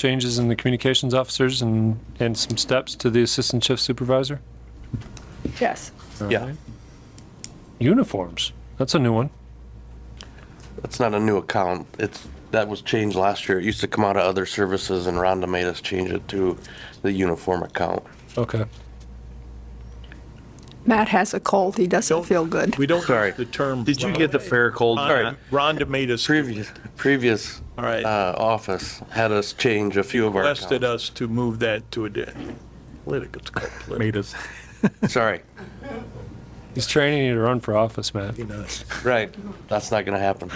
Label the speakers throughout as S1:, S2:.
S1: changes in the communications officers and, and some steps to the assistant chief supervisor?
S2: Yes.
S3: Yeah,
S1: Uniforms, that's a new one.
S3: that's not a new account. It's, that was changed last year. It used to come out of other services and Rhonda made us change it to the uniform account.
S1: Okay.
S2: Matt has a cold. He doesn't
S4: Don't-
S2: feel good.
S4: We don't
S3: Sorry.
S4: use the term.
S5: Did you get the fair cold?
S3: All right.
S4: Rhonda Rhonda made us,
S3: Previous, previous
S4: All right.
S3: uh, office had us change a few of our
S4: requested
S3: accounts.
S4: us to move that to a di- political. it's called political,
S5: Made us.
S3: Sorry,
S1: He's training you to run for office, man.
S4: you know.
S3: right. That's not going to happen.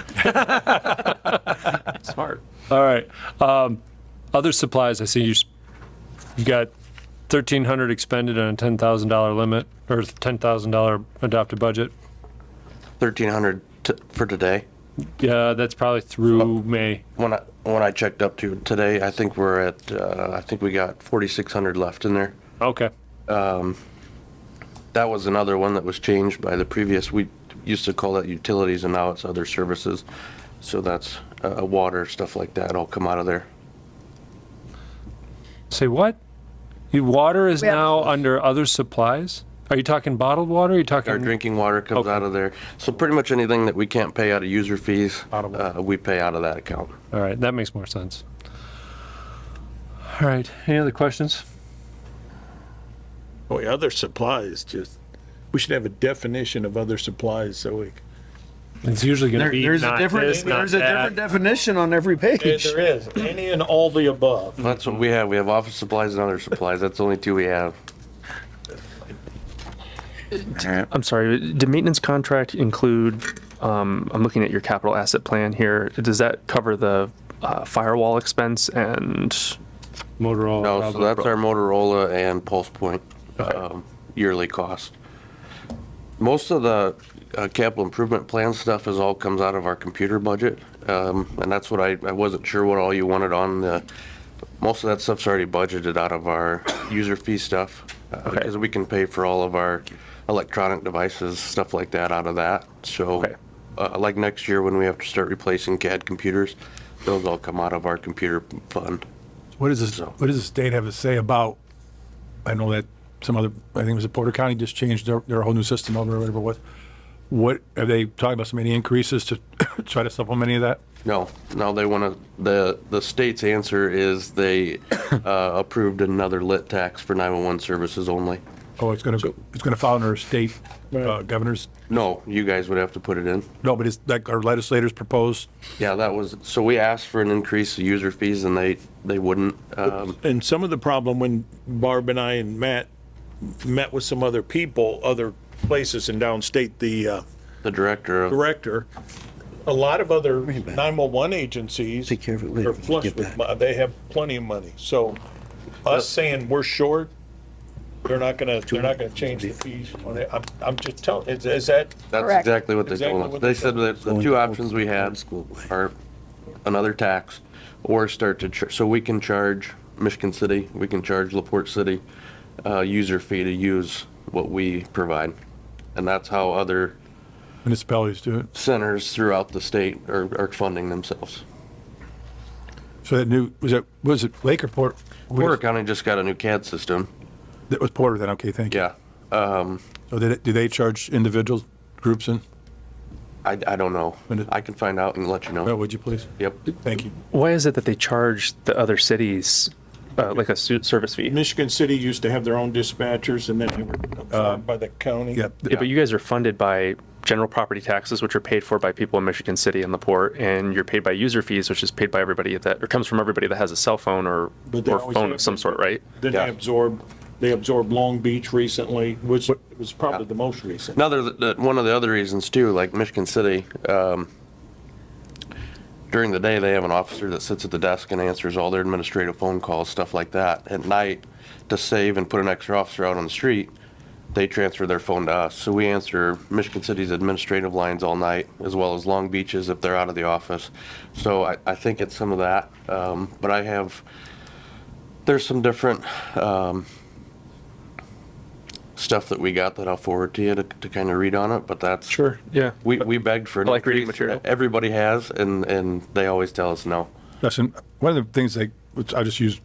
S5: Smart.
S1: All right. Um, other supplies, I see you, s- you got thirteen hundred expended on a ten thousand dollar limit or ten thousand dollar adopted budget.
S3: 1,300 t- for today.
S1: Yeah, that's probably
S4: Oh.
S1: through May.
S3: When I, when I checked up to today, I think we're at, uh, I think we got 4,600 left in there.
S1: Okay.
S3: That was another one that was changed by the previous, we used to call that utilities and now it's other services. So that's, uh, water, stuff like that, all come out of there.
S1: Say what? Your water is
S2: We have-
S1: now under other supplies? Are you talking bottled water? Are you talking?
S3: Our drinking water comes
S1: Okay.
S3: out of there. So pretty much anything that we can't pay out of user fees,
S1: Out of
S3: uh, we pay out of that account.
S1: All right, that makes more sense. All right, any other questions?
S4: Boy, other supplies, just, we should have a definition of other supplies so we.
S1: It's usually going to
S6: There-
S1: be
S6: there's a
S1: not
S6: different
S1: this, not
S6: there's a different
S1: that.
S6: definition on every page.
S4: is, any and all the above.
S3: That's what we have. We have office supplies and other supplies. That's the only two we have.
S7: I'm sorry, did maintenance contract include, um, I'm looking at your capital asset plan here, does that cover the uh, firewall expense and,
S1: Motorola.
S3: No, so
S1: probably.
S3: that's our Motorola and Pulse Point um, yearly cost. Most of the uh, capital improvement plan stuff is all comes out of our computer budget, um, and that's what I, I wasn't sure what all you wanted on the, most of that stuff's already budgeted out of our user fee stuff, uh, because we can pay for all of our electronic devices, stuff like that out of that, so,
S7: Okay.
S3: uh, like next year when we have to start replacing CAD computers, those all come out of our computer fund.
S8: What does this,
S3: So-
S8: what does the state have to say about, I know that some other, I think it was Porter County just changed their, their whole new system over, or whatever it was. What, are they talking about some any increases to try to supplement any of that?
S3: No, no, they want to, the, the state's answer is they uh, approved another lit tax for 911 services only.
S8: Oh, it's gonna go, it's gonna fall under state, uh, governors,
S3: No, you guys would have to put it in.
S8: no, but it's like our legislators proposed,
S3: Yeah, that was, so we asked for an increase of user fees and they, they wouldn't. Um,
S4: And some of the problem when Barb and I and Matt met with some other people, other places in downstate, the, uh,
S3: The director of,
S4: director, a lot of other 911 agencies.
S6: Take care of it later
S4: Are
S6: when you
S4: flush
S6: get
S4: with,
S6: back.
S4: mo- they have plenty of money. So us saying we're short, they're not gonna, they're not gonna change the fees. on it. I'm, I'm just telling, is, is that,
S3: that's
S2: Correct.
S3: exactly what they
S4: Exactly
S3: told us.
S4: what
S3: They
S4: they
S3: said that the two options we had are another tax or start to, char- so we can charge Michigan City, we can charge LaPorte City, uh, user fee to use what we provide. And that's how other
S8: municipalities do it.
S3: centers throughout the state are, are funding themselves.
S8: So that new, was it, was it Lake or Port?
S3: Porter County just got a new CAD system.
S8: That was Porter then, okay, thank you.
S3: Yeah.
S8: So did, do they charge individuals, groups in?
S3: I, I don't know.
S8: And it-
S3: I can find out and let you
S8: Well,
S3: know.
S8: would you please?
S3: Yep.
S8: Thank you.
S7: why is it that they charge the other cities, uh, like a su- service fee?
S4: Michigan City used to have their own dispatchers and then they were absorbed by the county?
S8: Yeah.
S7: Yeah, but you guys are funded by general property taxes, which are paid for by people in Michigan City and LaPorte, and you're paid by user fees, which is paid by everybody that, or comes from everybody that has a cell phone or,
S4: But they
S7: or
S4: always
S7: phone
S4: have-
S7: of some sort, right?
S4: Then
S3: Yeah.
S4: they absorbed, they absorbed Long Beach recently, which was probably the most recent.
S3: Another, the- one of the other reasons too, like Michigan City, um, during the day, they have an officer that sits at the desk and answers all their administrative phone calls, stuff like that. At night, to save and put an extra officer out on the street, they transfer their phone to us. So we answer Michigan City's administrative lines all night, as well as Long Beach's if they're out of the office. So I, I think it's some of that. Um, but I have, there's some different, um, stuff that we got that I'll forward to you to, to kind of read on it, but that's.
S7: Yeah.
S3: We, we begged for. an
S7: I like reading
S3: increase.
S7: material.
S3: Everybody has, and, and they always tell us no.
S8: Listen, one of the things like which I just used